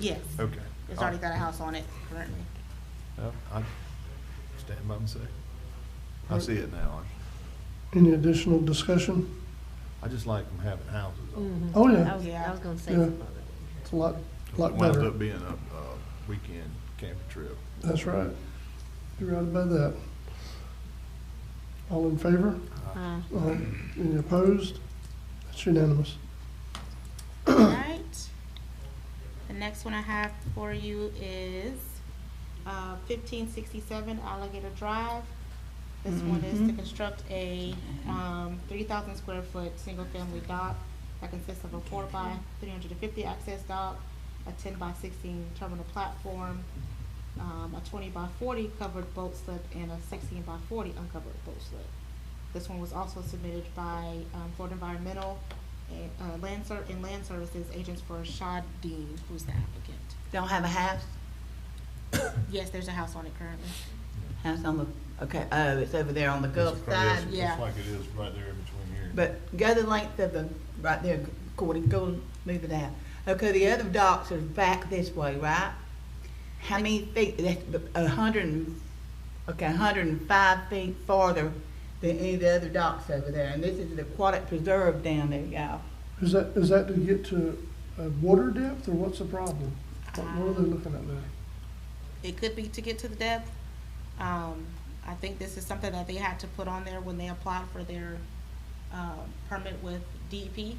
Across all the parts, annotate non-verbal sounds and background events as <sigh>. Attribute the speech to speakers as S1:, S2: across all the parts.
S1: Yes.
S2: Okay.
S1: It's already got a house on it currently.
S2: Yep, I stand by and say, I see it now.
S3: Any additional discussion?
S2: I I just like them having houses.
S1: Mm.
S2: on.
S4: Mhm.
S3: Oh,
S4: I
S3: yeah,
S4: was, I was gonna say
S3: Yeah.
S4: something.
S3: it's a lot, lot
S2: Winds
S3: better.
S2: up being a, uh weekend camping trip.
S3: That's right. You're right about that. All in favor?
S4: Uh,
S3: Uh, Any opposed? That's unanimous.
S1: Alright. The next one I have for you is, uh, fifteen sixty-seven Alligator Drive. This one is to construct a, um, three thousand square foot, single-family dock that consists of a four by three hundred and fifty access dock, a ten by sixteen terminal platform, um, a twenty by forty covered boat slip, and a sixteen by forty uncovered boat slip. This one was also submitted by, um, Florida Environmental, and, uh, Land Ser- and Land Services Agents for Shad Dean, who's the applicant.
S5: Don't have a house?
S1: Yes, there's a house on it currently.
S5: House on the, okay, oh, it's over there on the Gulf
S2: It's probably-
S5: side.
S2: it's-
S1: yeah.
S2: It's like it is right there in between here.
S5: But go the length of the, right there, Gordy, go move it out. Okay, the other docks are back this way, right? How many feet, that's a hundred and, okay, a hundred and five feet farther than any of the other docks over there. And this is the aquatic preserve down there, y'all.
S3: Is that, is that to get to uh, water depth, or what's the problem? What what are they looking at there?
S1: It could be to get to the depth. Um, I think this is something that they had to put on there when they applied for their, uh, permit with DEP,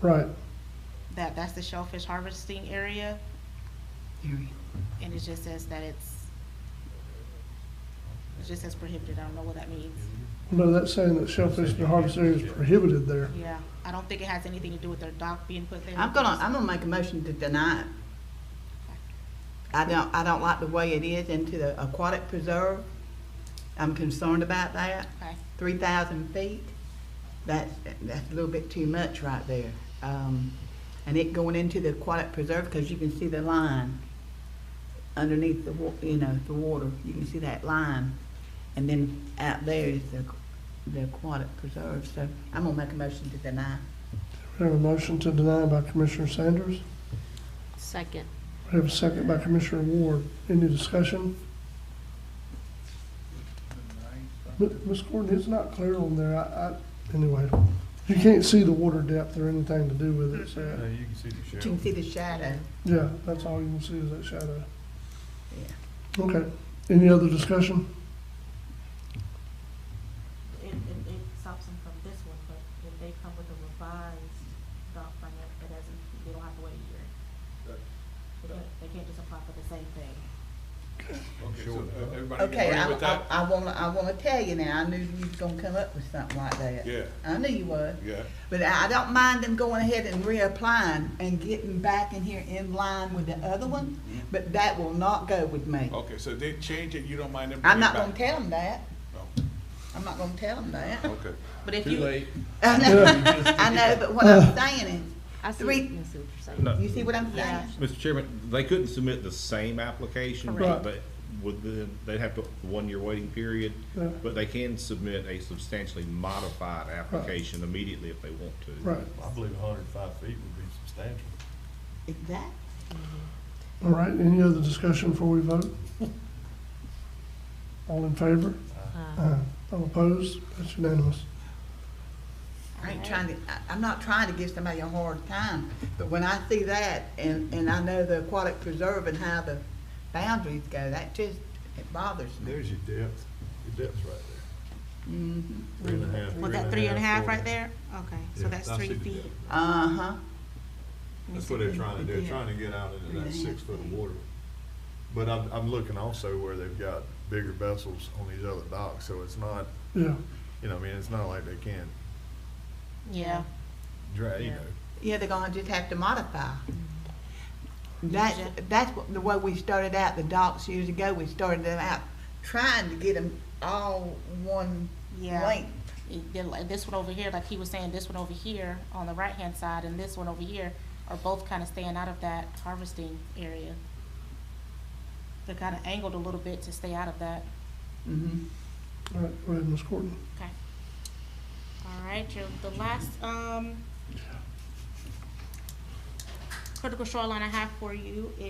S3: Right,
S1: that that's the shellfish harvesting area, and it just says that it's, it just says prohibited, I don't know what that means.
S3: no, that's saying that shellfish and harvest area is prohibited there.
S1: Yeah, I don't think it has anything to do with their dock being put there.
S5: I'm gonna, I'm gonna make a motion to deny it. I don't, I don't like the way it is into the aquatic preserve. I'm concerned about that.
S1: Okay,
S5: Three thousand feet, that's, that's a little bit too much right there. Um, and it going into the aquatic preserve, because you can see the line underneath the wa, you know, the water, you can see that line. And then out there is the, the aquatic preserve, so I'm gonna make a motion to deny.
S3: We have a motion to deny by Commissioner Sanders.
S4: Second.
S3: We have a second by Commissioner Ward. Any discussion? But, Ms. Gordon, it's not clear on there, I, I, anyway, you can't see the water depth or anything to do with it,
S2: Yeah,
S3: so,
S2: Uh, you can see the
S5: You
S2: shell.
S5: can see the shadow,
S3: yeah, that's all you can see is that shadow.
S5: yeah.
S3: Okay, any other discussion?
S6: it, it, it stops them from this one, but if they come with a revised doc permit, it doesn't, they don't have to wait a year. They can't, they can't just apply for the same thing.
S2: I'm sure of
S7: uh,
S2: that.
S5: Okay, I, I, I wanna, I wanna tell you now, I knew you was gonna come up with something like that.
S7: Yeah,
S5: I knew you would,
S7: yeah.
S5: but I, I don't mind them going ahead and reapplying and getting back in here in line with the other one, but that will not go with me.
S7: Okay, so they change it, you don't mind them
S5: I'm
S7: bringing it
S5: not
S7: back?
S5: gonna tell them that,
S7: No.
S5: I'm not gonna tell them that.
S7: Okay.
S1: but if you,
S5: <laughs> I know, I know, but what I'm saying
S4: I see,
S5: Three-
S4: I see what you're saying.
S8: No.
S5: is, you see what I'm saying?
S1: Yeah.
S8: Mr. Chairman, they couldn't submit the same application,
S3: Correct.
S8: but they- would the, they'd have to, one-year waiting period.
S3: Yeah.
S8: But they can submit a substantially modified application immediately if they want to.
S3: Right,
S2: I believe hundred and five feet would be substantial.
S5: Exactly.
S3: all right, any other discussion before we vote? All in favor?
S4: Uh,
S3: Aye. All opposed? That's unanimous.
S5: I ain't trying to, I, I'm not trying to give somebody a hard time, but when I see that and, and I know the aquatic preserve and how the boundaries go, that just, it bothers me.
S2: There's your depth, your depth's right there.
S5: Mhm.
S2: Three and a half.
S1: was Mm-hmm. that three and a half
S2: four.
S1: right there? Okay, so
S2: Yeah,
S1: that's
S2: I see
S1: three
S2: the
S1: feet.
S2: depth.
S5: Uh-huh,
S2: That's what they're trying to do,
S5: Yeah.
S2: they're trying to get out into that
S5: Yeah.
S2: six foot of water. But I'm, I'm looking also where they've got bigger vessels on these other docks, so it's not,
S3: Yeah,
S2: you know, I mean, it's not like they can't
S1: Yeah.
S2: dra, you
S1: Yeah.
S2: know.
S5: yeah, they're gonna just have to modify. That's, that's what- the way we started out the docks years ago, we started them out trying to get them all one
S1: Yeah.
S5: length.
S1: it- then, like, this one over here, like he was saying, this one over here on the right-hand side and this one over here are both kind of staying out of that harvesting area. They're kind of angled a little bit to stay out of that.
S5: Mhm.
S3: all right, go ahead, Ms. Courtney.
S1: All right, your, the last, um, critical shoreline I have for you